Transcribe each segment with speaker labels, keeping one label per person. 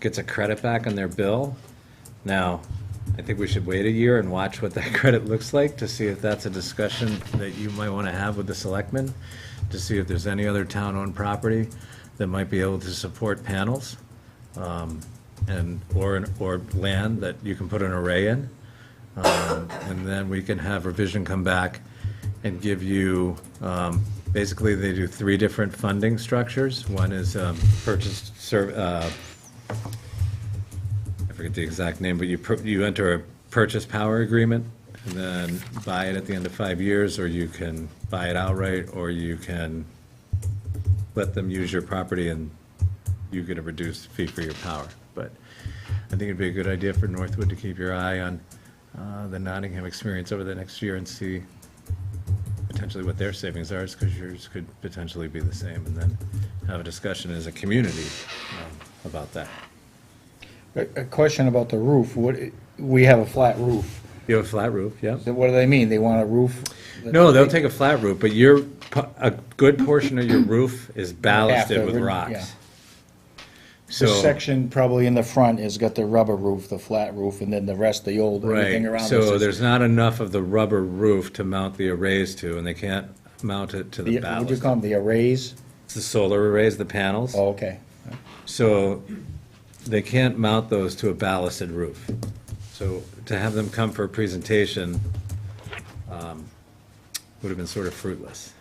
Speaker 1: gets a credit back on their bill. Now, I think we should wait a year and watch what that credit looks like to see if that's a discussion that you might want to have with the selectmen, to see if there's any other town-owned property that might be able to support panels, um, and, or, an- or land that you can put an array in. Um, And then we can have revision come back and give you, um, basically, they do three different funding structures. One is um, purchased ser- uh, I forget the exact name, but you, pur- you enter a purchase power agreement and then buy it at the end of five years, or you can buy it outright, or you can let them use your property and you get a reduced fee for your power. But I think it'd be a good idea for Northwood to keep your eye on uh, the Nottingham experience over the next year and see potentially what their savings are, because yours could potentially be the same, and then have a discussion as a community um, about that.
Speaker 2: A a question about the roof, what, we have a flat roof.
Speaker 1: You have a flat roof, yeah?
Speaker 2: So What do they mean? They want a roof? that-
Speaker 1: No, they'll take a flat roof, but your, po- a good portion of your roof is ballasted with
Speaker 2: After, yeah.
Speaker 1: rocks.
Speaker 2: The
Speaker 1: So,
Speaker 2: section probably in the front has got the rubber roof, the flat roof, and then the rest, the old, everything
Speaker 1: right,
Speaker 2: around. this
Speaker 1: so
Speaker 2: is-
Speaker 1: there's not enough of the rubber roof to mount the arrays to, and they can't mount it to the
Speaker 2: the- What do you
Speaker 1: ballast.
Speaker 2: call them, the arrays?
Speaker 1: It's the solar arrays, the panels.
Speaker 2: Oh, okay.
Speaker 1: So they can't mount those to a ballasted roof. So to have them come for a presentation um, would have been sort of fruitless.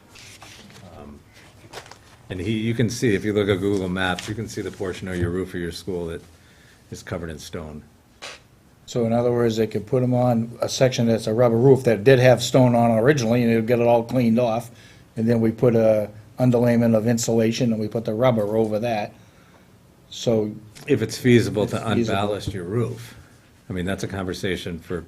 Speaker 1: Um, And he, you can see, if you look at Google Maps, you can see the portion of your roof of your school that is covered in stone.
Speaker 2: So in other words, they could put them on a section that's a rubber roof that did have stone on originally, and it'd get it all cleaned off. And then we put a underlayment of insulation, and we put the rubber over that. So
Speaker 1: If it's feasible to
Speaker 2: It's feasible.
Speaker 1: unballast your roof. I mean, that's a conversation for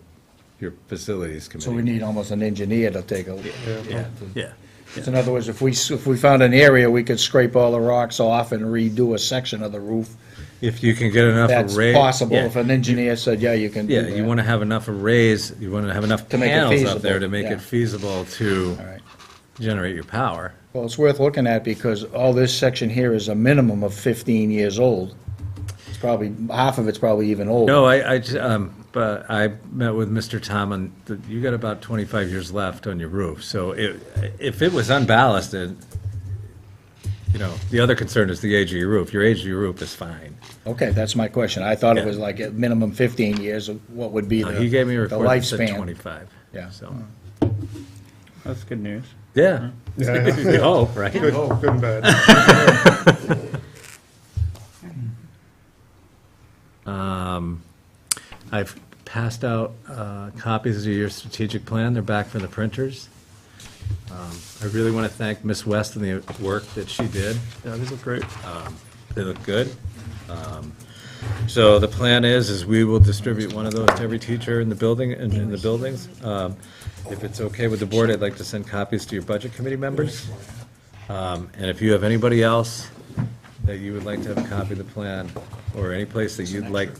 Speaker 1: your facilities committee.
Speaker 2: So we need almost an engineer to take a look.
Speaker 1: Yeah, yeah.
Speaker 2: So In other words, if we, s- if we found an area, we could scrape all the rocks off and redo a section of the roof.
Speaker 1: If you can get enough array.
Speaker 2: That's possible.
Speaker 1: Yeah.
Speaker 2: If an engineer said, yeah, you can do
Speaker 1: Yeah,
Speaker 2: that.
Speaker 1: you want to have enough arrays, you want to have enough
Speaker 2: To make it
Speaker 1: panels up there
Speaker 2: feasible,
Speaker 1: to make
Speaker 2: yeah.
Speaker 1: it feasible to
Speaker 2: All right.
Speaker 1: generate your power.
Speaker 2: Well, it's worth looking at because all this section here is a minimum of 15 years old. It's probably, half of it's probably even older.
Speaker 1: No, I, I, j- um, but I met with Mr. Tom on, the- you got about twenty-five years left on your roof, so if, if it was unballasted, you know, the other concern is the age of your roof. Your age of your roof is fine.
Speaker 2: Okay, that's my question. I thought it
Speaker 1: Yeah.
Speaker 2: was like a minimum 15 years of what would be
Speaker 1: Uh,
Speaker 2: the
Speaker 1: He gave me a
Speaker 2: the
Speaker 1: report that said
Speaker 2: lifespan.
Speaker 1: twenty-five,
Speaker 2: Yeah. Mm-hmm.
Speaker 1: so,
Speaker 3: That's good news.
Speaker 1: yeah. We hope, right?
Speaker 4: Good,
Speaker 3: Oh,
Speaker 4: good and bad.
Speaker 1: I've passed out uh, copies of your strategic plan. They're back from the printers. Um, I really want to thank Miss West and the work that she did. Um,
Speaker 3: Yeah, these look great.
Speaker 1: They look good. Um, So the plan is, is we will distribute one of those to every teacher in the building, in in the buildings. Um, If it's okay with the board, I'd like to send copies to your budget committee members. Um, And if you have anybody else that you would like to have a copy of the plan, or any place that you'd like,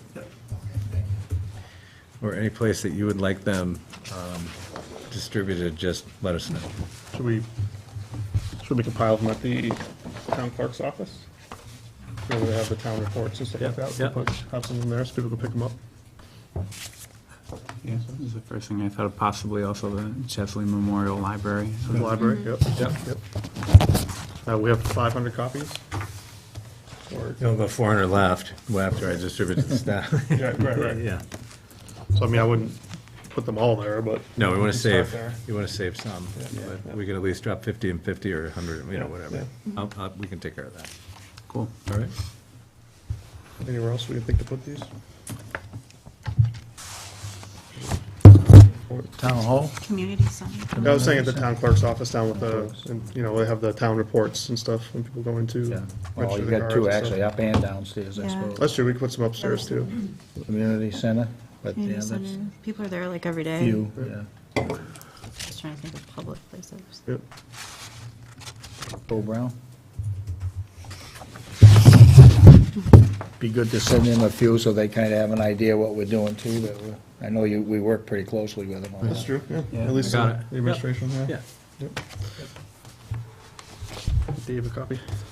Speaker 1: or any place that you would like them um, distributed, just let us know.
Speaker 3: Should we, should we compile them at the town clerk's office? Where they have the town reports and stuff like
Speaker 1: Yeah,
Speaker 3: that. We'll
Speaker 1: yeah.
Speaker 3: put- Have some in there so people can pick them up.
Speaker 5: Yeah, so this is the first thing I thought of, possibly also the Chesley Memorial Library. So
Speaker 3: The library,
Speaker 2: Mm-hmm.
Speaker 3: yep, yep, yep. Uh, we have five hundred copies? Or,
Speaker 1: You'll have 400 left after I distribute to the staff.
Speaker 3: yeah, right, right.
Speaker 1: Yeah.
Speaker 3: So I mean, I wouldn't put them all there, but.
Speaker 1: No, we want to
Speaker 3: start
Speaker 1: save,
Speaker 3: there.
Speaker 1: you want to save some, but we could at least drop 50 and 50 or 100, you know, whatever. I'll- I'll- We can take care of that.
Speaker 5: Cool.
Speaker 1: All right?
Speaker 3: Anywhere else we can think to put these? Or-
Speaker 2: Town hall?
Speaker 6: Community Summit.
Speaker 3: I was saying at the town clerk's office down with the, and, you know, they have the town reports and stuff when people go into.
Speaker 2: Well,
Speaker 3: register
Speaker 2: you
Speaker 3: their
Speaker 2: got
Speaker 3: cars
Speaker 2: two
Speaker 3: and stuff.
Speaker 2: actually, up and downstairs, I
Speaker 6: Yeah.
Speaker 2: suppose.
Speaker 3: That's true, we could put some upstairs too.
Speaker 2: Community center, but yeah,
Speaker 6: Community
Speaker 2: that's
Speaker 6: Center. People are there like every day.
Speaker 2: few, yeah.
Speaker 6: Just trying to think of public places.
Speaker 3: Yep.
Speaker 2: Bo Brown? Be good to send them a few so they kind of have an idea what we're doing too. that we're- I know you, we work pretty closely with them on
Speaker 3: That's
Speaker 2: that.
Speaker 3: true, yeah.
Speaker 5: Yeah.
Speaker 3: At least
Speaker 1: Got
Speaker 3: the
Speaker 1: it.
Speaker 3: administration, yeah.
Speaker 1: Yeah.
Speaker 3: Yep. Do you have a copy?